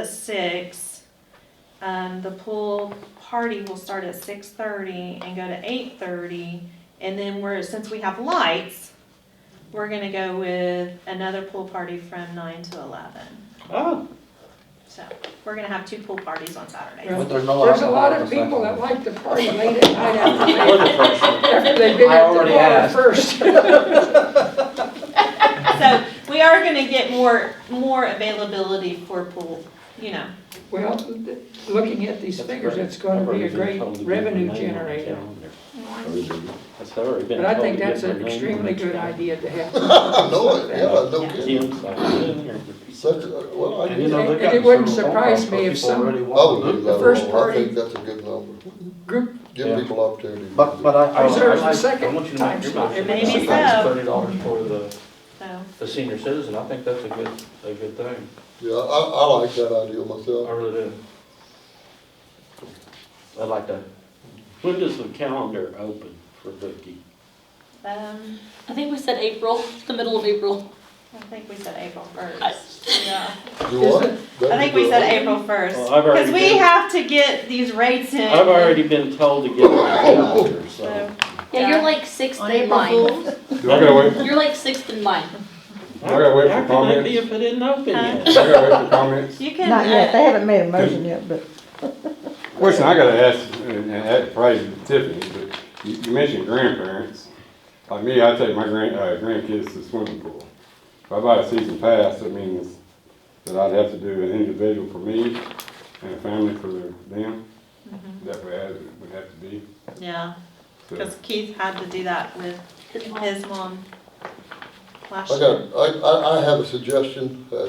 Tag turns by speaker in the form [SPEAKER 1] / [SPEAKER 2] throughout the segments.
[SPEAKER 1] at six. Um, the pool party will start at six thirty and go to eight thirty, and then we're, since we have lights, we're gonna go with another pool party from nine to eleven.
[SPEAKER 2] Oh,
[SPEAKER 1] So, we're gonna have two pool parties on Saturday.
[SPEAKER 3] There's
[SPEAKER 4] But there's no
[SPEAKER 3] a
[SPEAKER 4] alcohol
[SPEAKER 3] lot
[SPEAKER 4] at
[SPEAKER 3] of
[SPEAKER 4] the
[SPEAKER 3] people
[SPEAKER 4] second.
[SPEAKER 3] that like to party late at night after they,
[SPEAKER 2] blood pressure.
[SPEAKER 3] after they've been
[SPEAKER 4] I
[SPEAKER 3] at the
[SPEAKER 4] already
[SPEAKER 3] bar first.
[SPEAKER 4] asked.
[SPEAKER 1] So, we are gonna get more, more availability for pool, you know,
[SPEAKER 3] Well, th- looking at these
[SPEAKER 2] That's
[SPEAKER 3] figures,
[SPEAKER 2] great.
[SPEAKER 3] it's gonna be a
[SPEAKER 2] I've already
[SPEAKER 3] great
[SPEAKER 2] been told to put my name
[SPEAKER 3] revenue
[SPEAKER 2] on the
[SPEAKER 3] generator.
[SPEAKER 2] calendar. That's already been
[SPEAKER 3] But I
[SPEAKER 2] told
[SPEAKER 3] think
[SPEAKER 2] to put
[SPEAKER 3] that's
[SPEAKER 2] my
[SPEAKER 3] an
[SPEAKER 2] name on
[SPEAKER 3] extremely
[SPEAKER 2] the
[SPEAKER 3] good
[SPEAKER 2] calendar.
[SPEAKER 3] idea to have.
[SPEAKER 5] I know it, yeah, I know it.
[SPEAKER 2] Jim's like, "Yeah,
[SPEAKER 5] Such, a- well, I
[SPEAKER 2] And you
[SPEAKER 5] do.
[SPEAKER 2] know,
[SPEAKER 3] And
[SPEAKER 2] they've got
[SPEAKER 3] it wouldn't
[SPEAKER 2] several
[SPEAKER 3] surprise me if
[SPEAKER 4] People already
[SPEAKER 3] some
[SPEAKER 5] I
[SPEAKER 6] Oh,
[SPEAKER 4] want
[SPEAKER 5] would do
[SPEAKER 4] to.
[SPEAKER 5] that.
[SPEAKER 3] The first
[SPEAKER 5] I
[SPEAKER 3] party-
[SPEAKER 5] think that's a good number.
[SPEAKER 3] group
[SPEAKER 5] Give
[SPEAKER 2] Yeah.
[SPEAKER 5] people opportunity.
[SPEAKER 4] But, but I, I.
[SPEAKER 3] reserves
[SPEAKER 2] Oh,
[SPEAKER 3] the
[SPEAKER 4] I like-
[SPEAKER 2] I
[SPEAKER 3] second
[SPEAKER 2] want you to
[SPEAKER 3] time
[SPEAKER 2] make your
[SPEAKER 3] slot.
[SPEAKER 2] motion.
[SPEAKER 1] Maybe
[SPEAKER 2] I think that's
[SPEAKER 1] so.
[SPEAKER 2] Thirty dollars for the,
[SPEAKER 1] so.
[SPEAKER 2] the senior citizen, I think that's a good, a good thing,
[SPEAKER 5] Yeah, I, I like that idea
[SPEAKER 2] I
[SPEAKER 5] myself.
[SPEAKER 2] really do.
[SPEAKER 4] I like that.
[SPEAKER 2] When does the calendar open for booking?
[SPEAKER 1] Um,
[SPEAKER 7] I think we said April, the middle of April.
[SPEAKER 1] I think we said April first, yeah.
[SPEAKER 5] You want?
[SPEAKER 3] Is
[SPEAKER 1] I think we said April first,
[SPEAKER 2] Well, I've already
[SPEAKER 1] because we
[SPEAKER 2] been-
[SPEAKER 1] have to get these rates in.
[SPEAKER 2] I've already been told to get my
[SPEAKER 4] Oh.
[SPEAKER 2] calendar, so.
[SPEAKER 1] So,
[SPEAKER 7] Yeah, you're like sixth
[SPEAKER 1] On
[SPEAKER 7] in
[SPEAKER 1] April
[SPEAKER 7] line.
[SPEAKER 1] Fools?
[SPEAKER 6] I gotta wait,
[SPEAKER 7] You're like sixth in line.
[SPEAKER 6] I gotta wait
[SPEAKER 2] How can that
[SPEAKER 6] for comments.
[SPEAKER 2] be if it didn't open
[SPEAKER 1] Huh?
[SPEAKER 2] yet?
[SPEAKER 6] I gotta wait for comments.
[SPEAKER 1] You can.
[SPEAKER 8] Not yet,
[SPEAKER 1] uh,
[SPEAKER 8] they haven't made a motion yet, but
[SPEAKER 6] Question I gotta ask, and, and that probably Tiffany, but you, you mentioned grandparents. Like me, I take my grand, uh, grandkids to swimming pool. If I buy a season pass, that means that I'd have to do an individual for me and a family for them. That way I would have to be.
[SPEAKER 1] Yeah,
[SPEAKER 6] So,
[SPEAKER 1] because Keith had to do that with his mom last
[SPEAKER 5] I
[SPEAKER 1] year.
[SPEAKER 5] got, I, I, I have a suggestion, uh,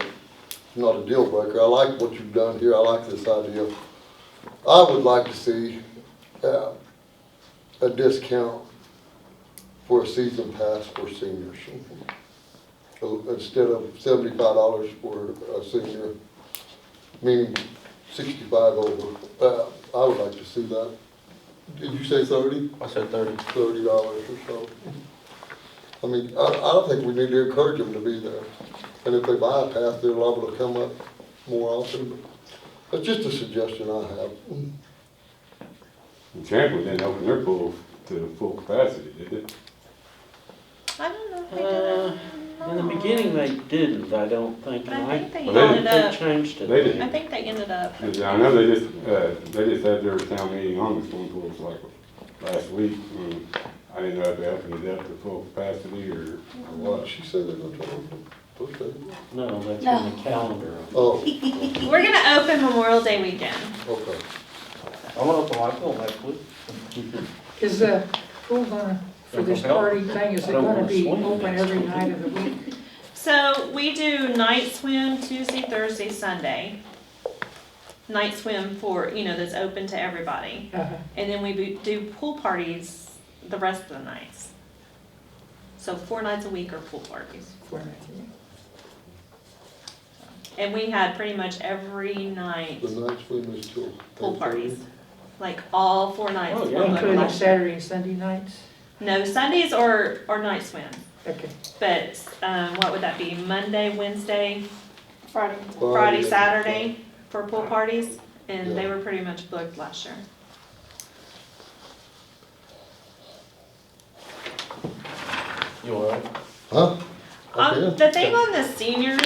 [SPEAKER 5] not a deal breaker, I like what you've done here, I like this idea. I would like to see, uh, a discount for a season pass for seniors. So Instead of seventy-five dollars for a senior, meaning sixty-five over, uh, I would like to see that. Did you say thirty?
[SPEAKER 2] I said thirty.
[SPEAKER 5] thirty dollars or so. I mean, I, I don't think we need to encourage them to be there. And if they buy a pass, they're liable to come up more often. That's just a suggestion I have.
[SPEAKER 6] and Champlin didn't open their pool to full capacity, did they?
[SPEAKER 1] I don't know if they did
[SPEAKER 2] Uh,
[SPEAKER 1] it.
[SPEAKER 2] In the beginning, they didn't, I don't think, and
[SPEAKER 1] I
[SPEAKER 2] I.
[SPEAKER 1] think they
[SPEAKER 6] Well,
[SPEAKER 1] ended up,
[SPEAKER 2] changed it.
[SPEAKER 6] They didn't.
[SPEAKER 1] I think they ended up,
[SPEAKER 6] Yeah, I know they just, uh, they just had their town meeting on the swimming pools like last week, and I didn't know if they opened it up to full capacity or, or what.
[SPEAKER 5] She said they're gonna try to, okay.
[SPEAKER 2] No, that's on the calendar.
[SPEAKER 5] Oh,
[SPEAKER 1] we're gonna open Memorial Day weekend.
[SPEAKER 5] okay.
[SPEAKER 2] I went up to my pool next week.
[SPEAKER 3] Is the pool gonna, for this party thing, is it
[SPEAKER 2] I don't
[SPEAKER 3] gonna
[SPEAKER 2] wanna
[SPEAKER 3] be
[SPEAKER 2] swim
[SPEAKER 3] open
[SPEAKER 2] next
[SPEAKER 3] every
[SPEAKER 2] week.
[SPEAKER 3] night of the week?
[SPEAKER 1] So we do night swim Tuesday, Thursday, Sunday. Night swim for, you know, that's open to everybody.
[SPEAKER 3] Uh-huh.
[SPEAKER 1] And then we bo- do pool parties the rest of the nights. So four nights a week are pool parties.
[SPEAKER 3] for Matthew.
[SPEAKER 1] And we had pretty much every night
[SPEAKER 5] The next one is till.
[SPEAKER 1] pool parties, like all four nights.
[SPEAKER 2] Oh, yeah.
[SPEAKER 1] were
[SPEAKER 3] Including
[SPEAKER 1] like-
[SPEAKER 3] Saturday and Sunday nights?
[SPEAKER 1] No, Sundays or, or night swim,
[SPEAKER 3] Okay.
[SPEAKER 1] but, um, what would that be, Monday, Wednesday,
[SPEAKER 7] Friday.
[SPEAKER 1] Friday, Saturday for pool parties? And they
[SPEAKER 5] Yeah.
[SPEAKER 1] were pretty much booked last year.
[SPEAKER 2] You all right?
[SPEAKER 5] Huh?
[SPEAKER 1] Um,
[SPEAKER 5] Okay.
[SPEAKER 1] the thing on the seniors.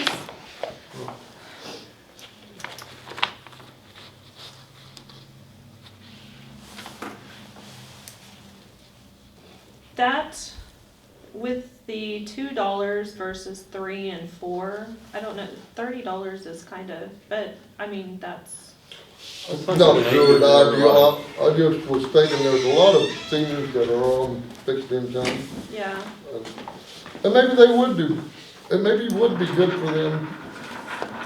[SPEAKER 1] That with the two dollars versus three and four, I don't know, thirty dollars is kind of, but I mean, that's,
[SPEAKER 5] Not a good idea. I, I just was thinking there's a lot of seniors that are on fixed income.
[SPEAKER 1] yeah.
[SPEAKER 5] And maybe they would do, and maybe it would be good for them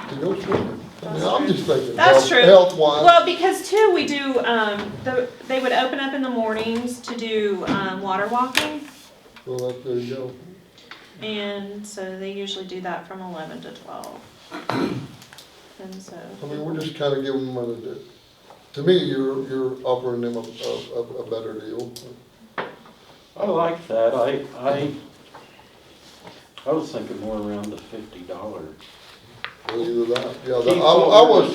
[SPEAKER 5] to go swimming. I mean, I'm just thinking.
[SPEAKER 1] That's true.
[SPEAKER 5] Health wise,
[SPEAKER 1] Well, because too, we do, um, the, they would open up in the mornings to do, um, water walking.
[SPEAKER 5] well, that- there you go.
[SPEAKER 1] And so they usually do that from eleven to twelve. And so,
[SPEAKER 5] I mean, we're just kinda giving them a, to me, you're, you're offering them a, a, a- a better deal.
[SPEAKER 2] I like that, I, I, I was thinking more around the fifty dollars.
[SPEAKER 5] Either that, yeah,
[SPEAKER 2] Keep
[SPEAKER 5] I, I was